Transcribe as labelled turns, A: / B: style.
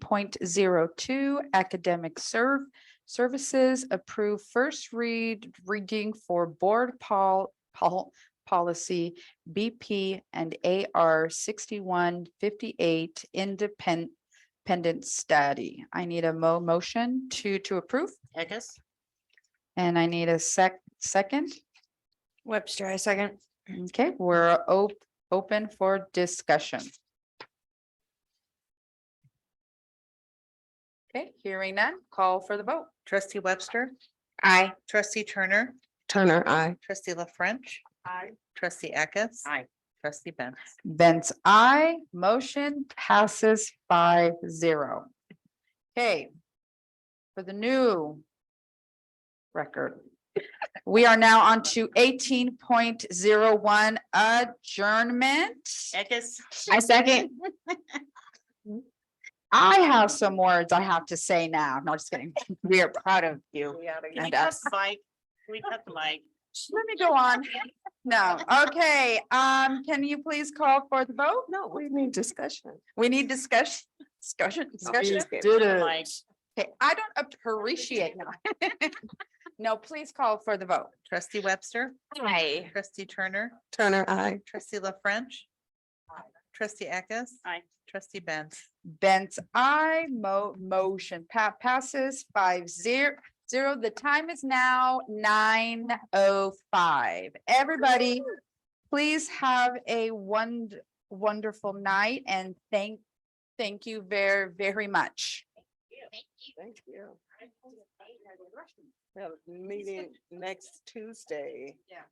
A: point zero two academic serve services approve first read reading for board pol- pol- policy BP and AR sixty-one fifty-eight independent study. I need a mo- motion to to approve
B: Eckes,
A: and I need a sec- second.
C: Webster, I second.
A: Okay, we're op- open for discussion. Okay, hearing none, call for the vote.
B: trustee Webster,
C: Aye.
B: trustee Turner,
C: Turner, I.
B: trustee La French. Aye. Trustee Eckes.
D: Aye.
B: Trustee Benz.
A: Benz, I motion passes by zero. Okay. For the new record. We are now on to eighteen point zero one adjournment.
B: Eckes.
C: I second.
A: I have some words I have to say now. No, just kidding. We are proud of you.
B: Can
A: And
B: we cut
A: us.
B: the mic? Can we cut the mic?
A: Let me go on. No, okay, um, can you please call for the vote?
C: No, we need discussion.
A: We need discussion, discussion, discussion.
C: Did
B: The mic.
A: Okay, I don't appreciate now. No, please call for the vote.
B: Trustee Webster,
C: Aye.
B: trustee Turner,
C: Turner, I.
B: trustee La French. Trustee Eckes.
D: Aye.
B: Trustee Benz.
A: Benz, I mo- motion pa- passes five zero zero. The time is now nine oh five. Everybody, please have a wond- wonderful night and thank, thank you very, very much.
E: Thank you. We have a meeting next Tuesday.
D: Yeah.